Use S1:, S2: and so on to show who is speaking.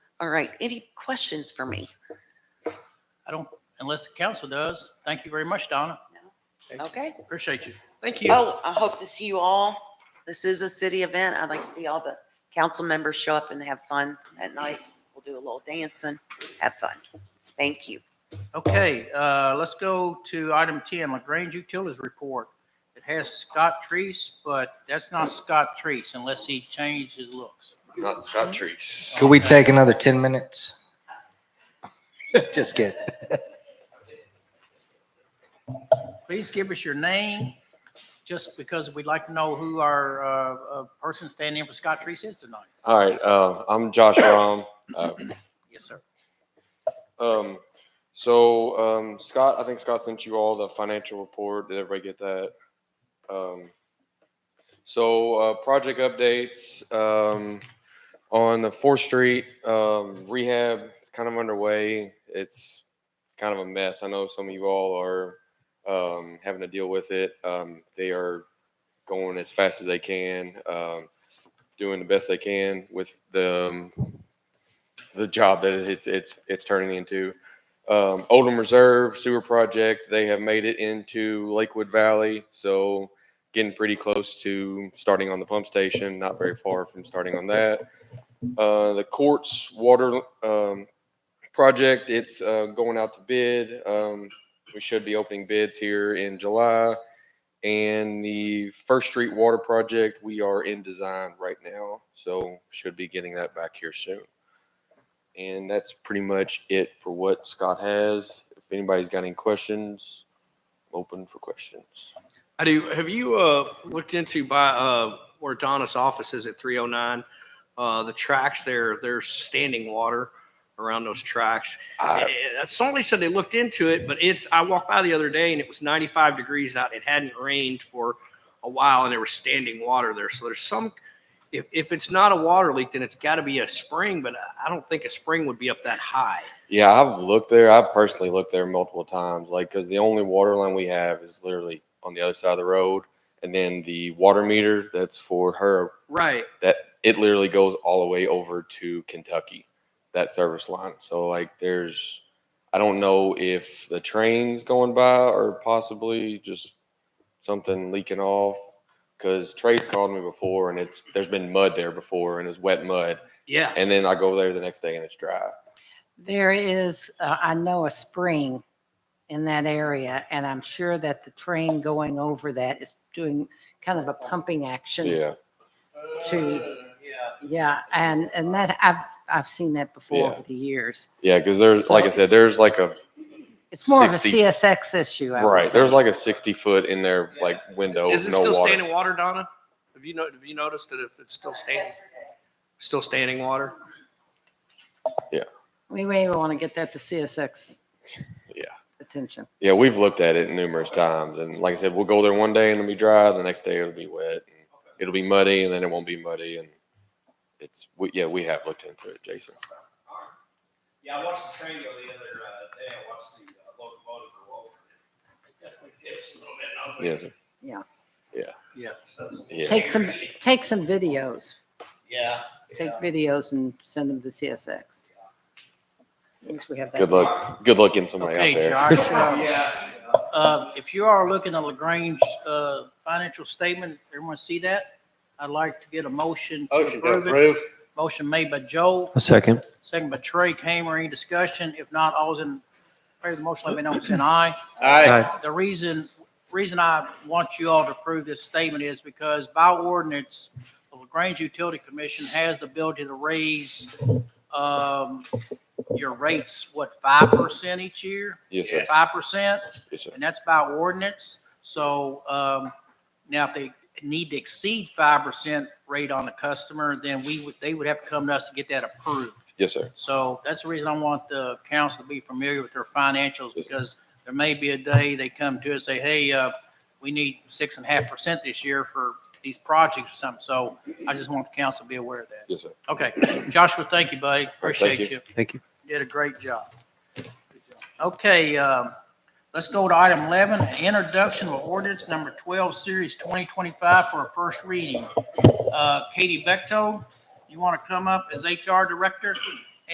S1: All right, any questions for me?
S2: I don't, unless the council does. Thank you very much, Donna.
S1: Okay.
S2: Appreciate you. Thank you.
S1: Oh, I hope to see you all. This is a city event. I'd like to see all the council members show up and have fun at night. We'll do a little dancing, have fun. Thank you.
S2: Okay, uh, let's go to item 10, LaGrange Utilities Report. It has Scott Treese, but that's not Scott Treese unless he changed his looks.
S3: Not Scott Trees.
S4: Could we take another 10 minutes? Just kidding.
S2: Please give us your name, just because we'd like to know who our uh, uh, person standing in for Scott Treese is tonight.
S3: All right, uh, I'm Josh Rom. Uh,
S2: Yes, sir.
S3: um, so um, Scott, I think Scott sent you all the financial report. Did everybody get that? Um, so uh, project updates um, on the Fourth Street um, rehab. It's kind of underway. It's kind of a mess. I know some of you all are um, having to deal with it. Um, they are going as fast as they can, um, doing the best they can with the um, the job that it's it's it's turning into. Um, Oldham Reserve Sewer Project, they have made it into Lakewood Valley, so getting pretty close to starting on the pump station, not very far from starting on that. Uh, the courts water um, project, it's uh, going out to bid. Um, we should be opening bids here in July. And the First Street Water Project, we are in design right now, so should be getting that back here soon. And that's pretty much it for what Scott has. If anybody's got any questions, open for questions.
S5: I do. Have you uh, looked into by uh, where Donna's office is at 309? Uh, the tracks there, there's standing water around those tracks.
S3: I-
S5: Eh, eh, Somebody said they looked into it, but it's. I walked by the other day and it was 95 degrees out. It hadn't rained for a while, and there was standing water there. So there's some. If, if it's not a water leak, then it's got to be a spring. But I- I don't think a spring would be up that high.
S3: Yeah, I've looked there. I've personally looked there multiple times, like, because the only water line we have is literally on the other side of the road. And then the water meter that's for her,
S5: Right.
S3: that it literally goes all the way over to Kentucky, that service line. So, like, there's, I don't know if the train's going by or possibly just something leaking off. Because Trey's called me before and it's, there's been mud there before and it's wet mud.
S5: Yeah.
S3: And then I go there the next day and it's dry.
S6: There is, uh, I know a spring in that area, and I'm sure that the train going over that is doing kind of a pumping action
S3: Yeah.
S6: to, yeah, and, and that, I've, I've seen that before
S3: Yeah.
S6: over the years.
S3: Yeah. Because there's, like I
S6: So
S3: said, there's like a,
S6: It's more of a
S3: 60.
S6: CSX issue, I would
S3: right,
S6: say.
S3: there's like a 60 foot in there,
S5: Yeah.
S3: like window,
S5: Is it
S3: no
S5: still
S3: water.
S5: standing water, Donna? Have you, no- have you noticed that if it's still standing? Still standing water?
S6: We may want to get that to CSX.
S3: Yeah.
S6: Attention.
S3: Yeah, we've looked at it numerous times, and like I said, we'll go there one day and it'll be dry. The next day it'll be wet. And it'll be muddy, and then it won't be muddy. And it's we, yeah, we have looked into it, Jason.
S5: Yeah, I watched the train go the other uh, day. I watched the uh, locomotive go over. It's a little bit. and I was like,
S3: Yes, sir.
S5: Yes.
S3: yeah.
S6: Take some, take some videos.
S5: Yeah.
S6: Take videos and send them to CSX. At least we have that.
S3: Good luck. Good luck getting somebody out
S2: Okay,
S3: there.
S2: Josh, uh,
S5: Yeah.
S2: uh, if you are looking at LaGrange uh, financial statement, everyone see that? I'd like to get a motion to
S7: Motion to
S2: approve it.
S7: approve.
S2: Motion made by Joe,
S4: A second.
S2: second by Trey Kramer. Any discussion? If not, all's in favor of the motion, let me know by saying aye.
S7: Aye.
S2: The reason, reason I want you all to approve this statement is because by ordinance, the LaGrange Utility Commission has the ability to raise um, your rates, what, 5% each year?
S3: Yes, sir.
S2: 5%?
S3: Yes, sir.
S2: and that's by ordinance. So um, now if they need to exceed five percent rate on the customer, then we would, they would have to come to us to get that approved.
S3: Yes, sir.
S2: So that's the reason I want the council to be familiar with their financials because there may be a day they come to us, say, hey, uh, we need six and a half percent this year for these projects or something. So I just want the council to be aware of that.
S3: Yes, sir.
S2: Okay, Joshua, thank you, buddy. Appreciate
S3: you.
S2: you.
S4: Thank you.
S2: Did a great job. Okay, um, let's go to item 11, an introduction of ordinance number 12, series 2025 for a first reading. Uh, Katie Bechtold, you want to come up as HR director?